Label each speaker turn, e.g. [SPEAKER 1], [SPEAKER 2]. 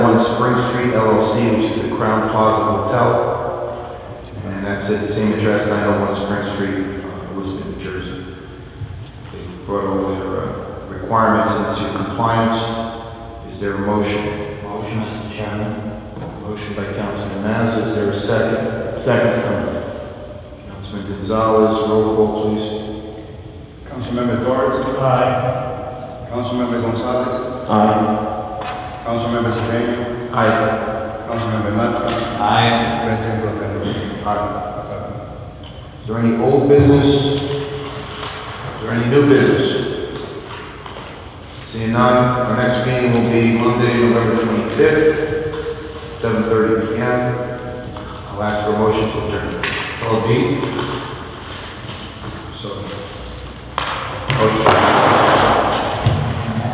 [SPEAKER 1] One Spring Street LLC, which is the Crown Plaza Hotel. And that's it, same address, 901 Spring Street, uh, Elizabeth, New Jersey. They've brought all their uh, requirements into compliance. Is there a motion?
[SPEAKER 2] Motion, Mr. Chairman.
[SPEAKER 1] Motion by Councilman Mazza, is there a second? Second. Councilman Gonzalez, roll call, please.
[SPEAKER 3] Councilmember Torres.
[SPEAKER 2] Aye.
[SPEAKER 3] Councilmember Gonzalez.
[SPEAKER 1] Aye.
[SPEAKER 3] Councilmember Sedan.
[SPEAKER 1] Aye.
[SPEAKER 3] Councilmember Matta.
[SPEAKER 2] Aye.
[SPEAKER 3] President Botero.
[SPEAKER 1] Aye. Is there any old business? Is there any new business? Seeing none, our next meeting will be Monday, November 25th, 7:30 PM. I'll ask for a motion to adjourn.
[SPEAKER 2] So be.
[SPEAKER 1] So. Motion.